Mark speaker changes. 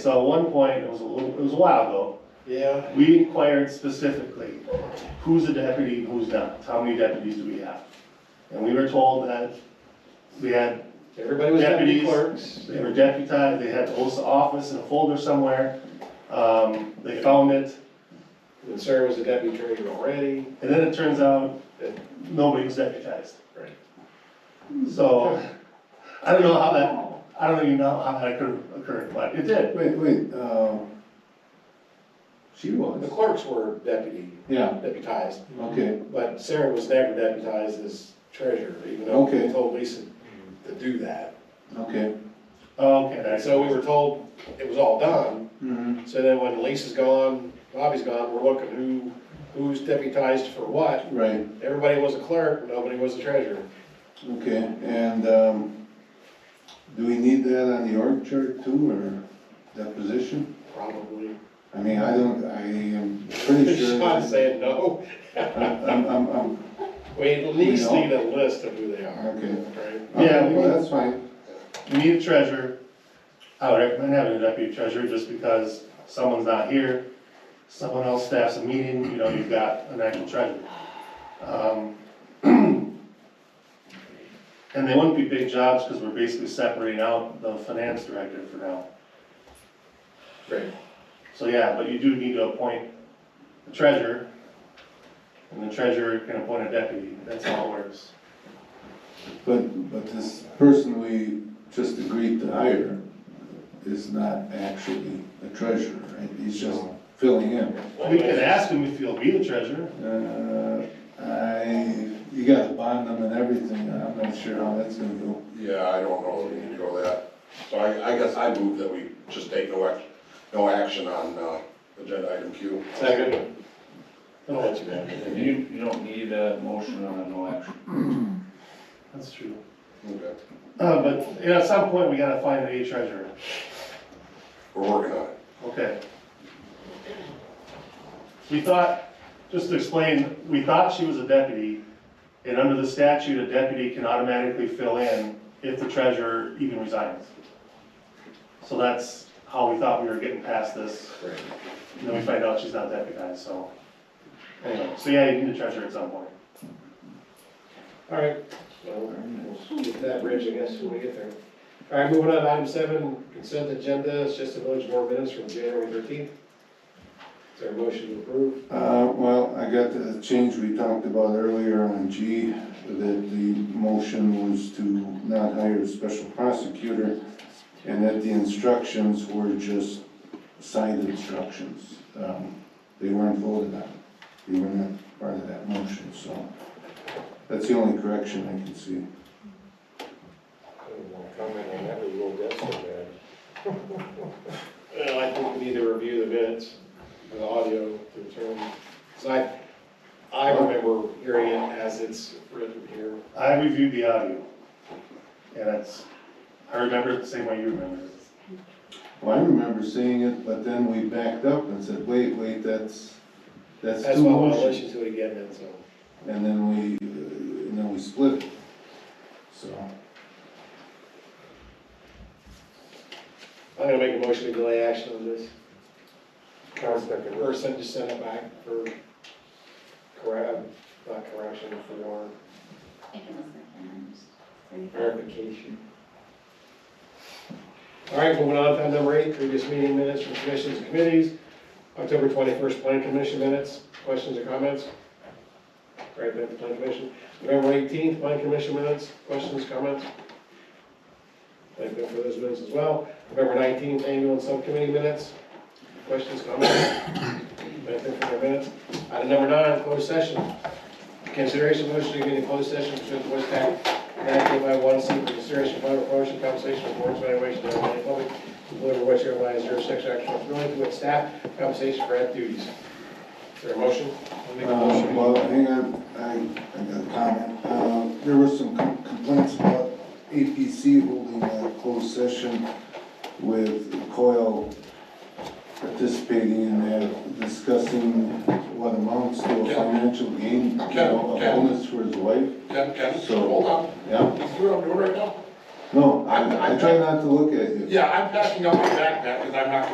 Speaker 1: So at one point, it was a little, it was a while ago,
Speaker 2: Yeah,
Speaker 1: we inquired specifically, who's a deputy and who's not? How many deputies do we have? And we were told that we had,
Speaker 2: everybody was deputy
Speaker 1: Deputies.
Speaker 2: clerks.
Speaker 1: they were deputized, they had the oath of office in a folder somewhere. Um, they found it,
Speaker 2: And Sarah was a deputy treasurer already.
Speaker 1: and then it turns out that nobody was deputized.
Speaker 2: Right.
Speaker 1: So, I don't know how that, I don't even know how that occurred, occurred, but it did.
Speaker 3: Wait, wait, um, she
Speaker 2: The
Speaker 3: was,
Speaker 2: clerks were deputy,
Speaker 3: yeah,
Speaker 2: deputized,
Speaker 3: okay,
Speaker 2: but Sarah was never deputized as treasurer, even though we
Speaker 3: Okay.
Speaker 2: told Lisa to do that.
Speaker 3: okay.
Speaker 1: Okay,
Speaker 2: And
Speaker 1: that's,
Speaker 2: so we were told it was all done,
Speaker 3: Mm-hmm.
Speaker 2: so then when Lisa's gone, Bobby's gone, we're looking who, who's deputized for what.
Speaker 3: Right,
Speaker 2: Everybody was a clerk, nobody was a treasurer.
Speaker 3: okay, and, um, do we need that on the org chart too, or that position?
Speaker 2: Probably.
Speaker 3: I mean, I don't, I am pretty sure.
Speaker 2: Sean's
Speaker 3: that-
Speaker 2: saying no.
Speaker 3: I'm, I'm, I'm,
Speaker 2: We at least
Speaker 3: No.
Speaker 2: need a list of who they are,
Speaker 3: okay.
Speaker 2: right?
Speaker 1: Yeah, we-
Speaker 3: Well, that's fine,
Speaker 1: you need a treasurer. I would recommend having a deputy treasurer just because someone's not here, someone else staffs a meeting, you know, you've got an actual treasurer. Um, And they wouldn't be big jobs because we're basically separating out the finance director for now.
Speaker 2: Right.
Speaker 1: So yeah, but you do need to appoint the treasurer, and the treasurer can appoint a deputy, that's how it works.
Speaker 3: but, but this person we just agreed to hire is not actually a treasurer, right? He's just filling in.
Speaker 1: We can ask him if he'll be the treasurer.
Speaker 3: Uh, I, you gotta bond them and everything, I'm not sure how that's gonna go.
Speaker 4: Yeah, I don't know, if we need to go that. So I, I guess I move that we just take no action, no action on, uh, agenda item Q.
Speaker 2: Second. I'll let you have it.
Speaker 5: You, you don't need a motion on a no action.
Speaker 1: That's true.
Speaker 4: Okay.
Speaker 1: Uh, but, you know, at some point, we gotta find a treasurer.
Speaker 4: We're working on it.
Speaker 1: Okay. We thought, just to explain, we thought she was a deputy, and under the statute, a deputy can automatically fill in if the treasurer even resigns. So that's how we thought we were getting past this,
Speaker 2: Right.
Speaker 1: and then we find out she's not deputized, so. Anyway, so yeah, you need a treasurer at some point.
Speaker 2: All right, well, we'll get that bridge, I guess, when we get there. All right, moving on, to item seven, consent agenda, it's just a village board minutes from January thirteenth. Is there a motion to approve?
Speaker 3: Uh, well, I got the change we talked about earlier on G, that the motion was to not hire a special prosecutor, and that the instructions were just signed instructions. Um, They weren't voted on, they were not part of that motion, so that's the only correction I can see.
Speaker 2: Comment on that, we will get so bad. Well, I think we need to review the minutes, the audio to determine, 'cause I, I remember hearing it as it's written here.
Speaker 1: I reviewed the audio, and that's, I remember it the same way you remember it.
Speaker 3: Well, I remember seeing it, but then we backed up and said, wait, wait, that's, that's
Speaker 2: That's
Speaker 3: two
Speaker 2: why I want to
Speaker 3: motions.
Speaker 2: listen to it again then, so.
Speaker 3: And then we, uh, and then we split it. So,
Speaker 2: I'm gonna make a motion to delay action on this. Or send, just send it back for correct, not correction, for
Speaker 6: It was like, um,
Speaker 2: verification. All right, moving on to item number eight, previous meeting minutes from commissions and committees, October twenty-first, plan commission minutes, questions or comments? Great, then, plan commission, November eighteenth, plan commission minutes, questions, comments? Thank you for those minutes as well, November nineteenth, annual and subcommittee minutes, questions, comments? Thank you for their minutes, item number nine, closed session, Consideration motion to convene in closed session pursuant to West Tech, nineteen by one, C, for consideration of private promotion, compensation, or board's evaluation of any public employee or which otherwise zero six action or really with staff, compensation for ad duties. Is there a motion? I'll make a
Speaker 3: um,
Speaker 2: motion.
Speaker 3: well, hang on, I, I got a comment. Uh, there was some com- complaints about APC holding a closed session with Coyle participating in that, discussing what amounts to a
Speaker 4: Yeah.
Speaker 3: financial gain, you know, a
Speaker 4: Yeah, yeah.
Speaker 3: bonus for his wife,
Speaker 4: Ken, Ken,
Speaker 3: So-
Speaker 4: hold on.
Speaker 3: yeah?
Speaker 4: You see what I'm doing right now?
Speaker 3: No, I, I try not to look at you.
Speaker 4: Yeah, I'm packing up my backpack because I'm not